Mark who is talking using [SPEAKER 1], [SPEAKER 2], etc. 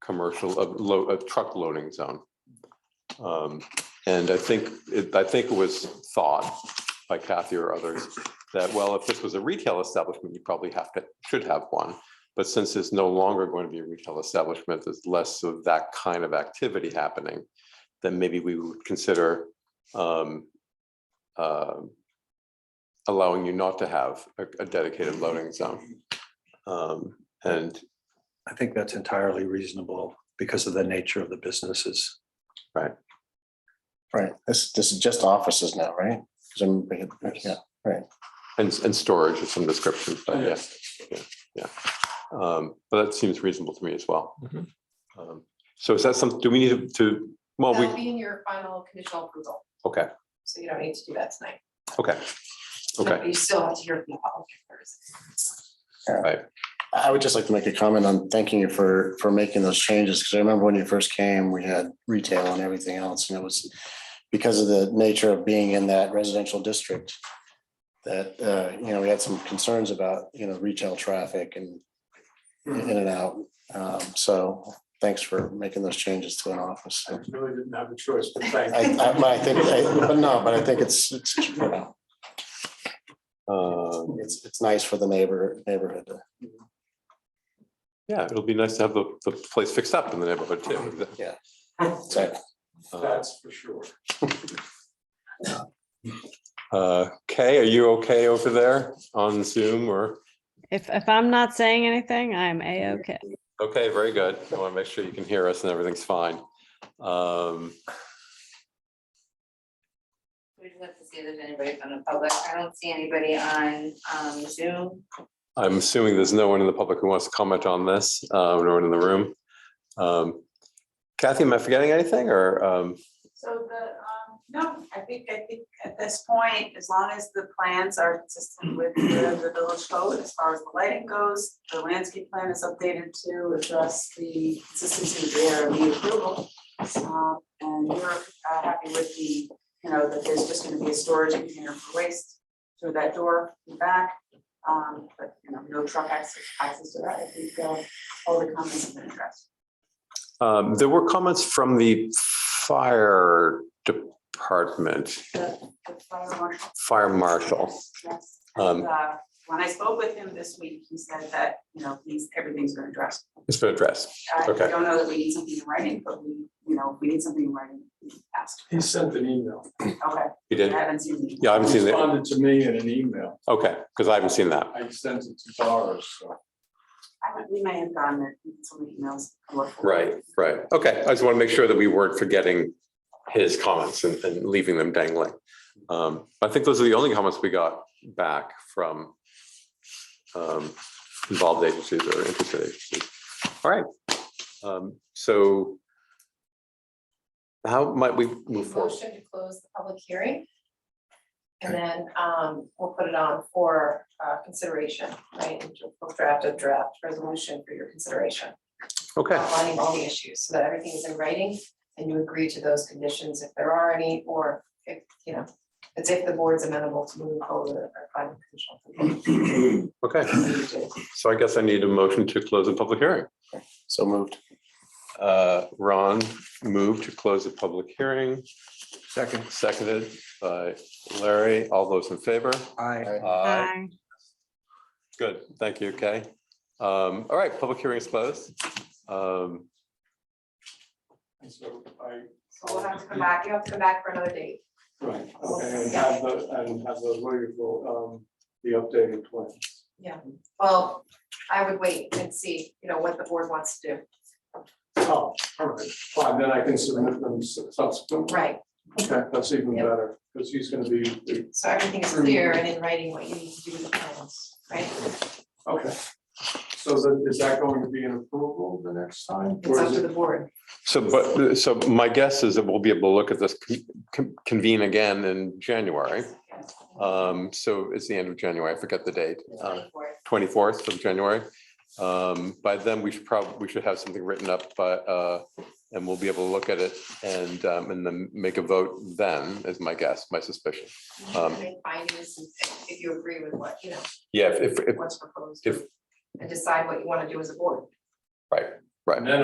[SPEAKER 1] commercial, of load, of truck loading zone. Um, And I think, it- I think it was thought by Kathy or others that, well, if this was a retail establishment, you probably have to, should have one. But since it's no longer going to be a retail establishment, there's less of that kind of activity happening, then maybe we would consider um, um, allowing you not to have a a dedicated loading zone. Um, And,
[SPEAKER 2] I think that's entirely reasonable because of the nature of the businesses.
[SPEAKER 3] Right, this, this is just offices now, right? 'Cause I'm- yeah.
[SPEAKER 1] and, and storage of some description, but yes, yeah, yeah. Um, But that seems reasonable to me as well.
[SPEAKER 4] Mhm.
[SPEAKER 1] Um, So is that something, do we need to, well, Oh, we,
[SPEAKER 5] That'll be in your final conditional approval,
[SPEAKER 1] okay,
[SPEAKER 5] so you don't need to do that tonight.
[SPEAKER 1] okay, okay.
[SPEAKER 5] But You still have to hear from the public. first.
[SPEAKER 3] I would just like to make a comment on thanking you for, for making those changes, because I remember when you first came, we had retail and everything else, and it was because of the nature of being in that residential district, that, uh, you know, we had some concerns about, you know, retail traffic and in and out. Um, So thanks for making those changes to an office. I,
[SPEAKER 6] really didn't have a choice, but thank you.
[SPEAKER 3] I but I think, I- but no, but I think it's, it's, you know,
[SPEAKER 1] Um,
[SPEAKER 3] it's, it's nice for the neighbor, neighborhood to
[SPEAKER 1] Yeah, it'll be nice to have the, the place fixed up in the neighborhood too.
[SPEAKER 3] say.
[SPEAKER 6] That's for sure.
[SPEAKER 1] Uh, Kay, are you okay over there on Zoom or?
[SPEAKER 7] If, if I'm not saying anything, I'm A-OK.
[SPEAKER 1] Okay, very good. I want to make sure you can hear us and everything's fine. Um,
[SPEAKER 8] We just have to see if there's anybody from the public. I don't see anybody on um, Zoom.
[SPEAKER 1] I'm assuming there's no one in the public who wants to comment on this, uh, no one in the room. Um, Kathy, am I forgetting anything or, um,
[SPEAKER 9] So the, um, no, I think, I think at this point, as long as the plans are consistent with the the village code, as far as the lighting goes, the landscape plan is updated to address the consistency of the ARB approval. Um, and you're uh, happy with the, you know, that there's just gonna be a storage container for waste through that door in the back. Um, but, you know, no truck access, access to that, I think, uh, all the comments have been addressed.
[SPEAKER 1] um, there were comments from the fire department,
[SPEAKER 9] The, the fire marshal
[SPEAKER 1] fire marshal.
[SPEAKER 9] Yes,
[SPEAKER 1] Um,
[SPEAKER 9] and, uh, when I spoke with him this week, he said that, you know, he's, everything's been addressed.
[SPEAKER 1] It's been addressed.
[SPEAKER 9] I I
[SPEAKER 1] Okay.
[SPEAKER 9] don't know that we need something in writing, but we, you know, if we need something in writing, we asked.
[SPEAKER 6] He sent an email,
[SPEAKER 9] Okay,
[SPEAKER 1] You
[SPEAKER 9] I
[SPEAKER 1] did?
[SPEAKER 9] haven't seen it.
[SPEAKER 1] Yeah, I haven't seen that.
[SPEAKER 6] responded to me in an email.
[SPEAKER 1] Okay, because I haven't seen that.
[SPEAKER 6] I sent it to Doris, so.
[SPEAKER 9] I haven't, we may have gotten it, in so many emails. I looked for it.
[SPEAKER 1] Right, right. Okay, I just want to make sure that we weren't forgetting his comments and, and leaving them dangling. Um, I think those are the only comments we got back from um, involved agencies or interested agencies. All right. Um, so how might we move forward?
[SPEAKER 5] Motion to close the public hearing. And then um, we'll put it on for uh, consideration, right? And We'll draft a draft resolution for your consideration.
[SPEAKER 1] Okay,
[SPEAKER 5] Outlining all the issues, so that everything is in writing and you agree to those conditions if there are any, or if, you know, it's if the board's amenable to moving forward with our final conditional.
[SPEAKER 1] okay.
[SPEAKER 5] approval.
[SPEAKER 1] So I guess I need a motion to close the public hearing.
[SPEAKER 3] So moved.
[SPEAKER 1] Uh, Ron moved to close the public hearing.
[SPEAKER 2] Second,
[SPEAKER 1] Seconded by Larry. All those in favor?
[SPEAKER 2] I.
[SPEAKER 1] Aye.
[SPEAKER 7] Aye.
[SPEAKER 1] Uh, Good. Thank you, Kay. Um, all right, public hearing is closed. Um,
[SPEAKER 6] And so I,
[SPEAKER 5] So we'll have to come back, you have to come back for another date.
[SPEAKER 6] right, okay, and have the, and have the wonderful, um, the updated plan.
[SPEAKER 5] Well, I would wait and see, you know, what the board wants to do.
[SPEAKER 6] Oh, all right, fine, then I can submit them subsequently.
[SPEAKER 5] Right.
[SPEAKER 6] Okay, that's even
[SPEAKER 5] Yeah.
[SPEAKER 6] better, because he's gonna be,
[SPEAKER 5] So everything is clear and in writing what you need to do with the plans, right?
[SPEAKER 6] okay. So then, is that going to be an approval the next time?
[SPEAKER 5] It's
[SPEAKER 6] or
[SPEAKER 5] up
[SPEAKER 6] is
[SPEAKER 5] to
[SPEAKER 6] it?
[SPEAKER 5] the board.
[SPEAKER 1] so, but, so my guess is that we'll be able to look at this, con- con- convene again in January. Um, so it's the end of January. I forget the date. Uh, twenty-fourth of January. Um, by then, we should probably, we should have something written up, but, uh, and we'll be able to look at it and, um, and then make a vote then, is my guess, my suspicion. um,
[SPEAKER 5] Make findings and if you agree with what, you know,
[SPEAKER 1] Yeah, if, if,
[SPEAKER 5] what's proposed.
[SPEAKER 1] if-
[SPEAKER 5] And decide what you want to do as a board.
[SPEAKER 1] right.
[SPEAKER 6] And then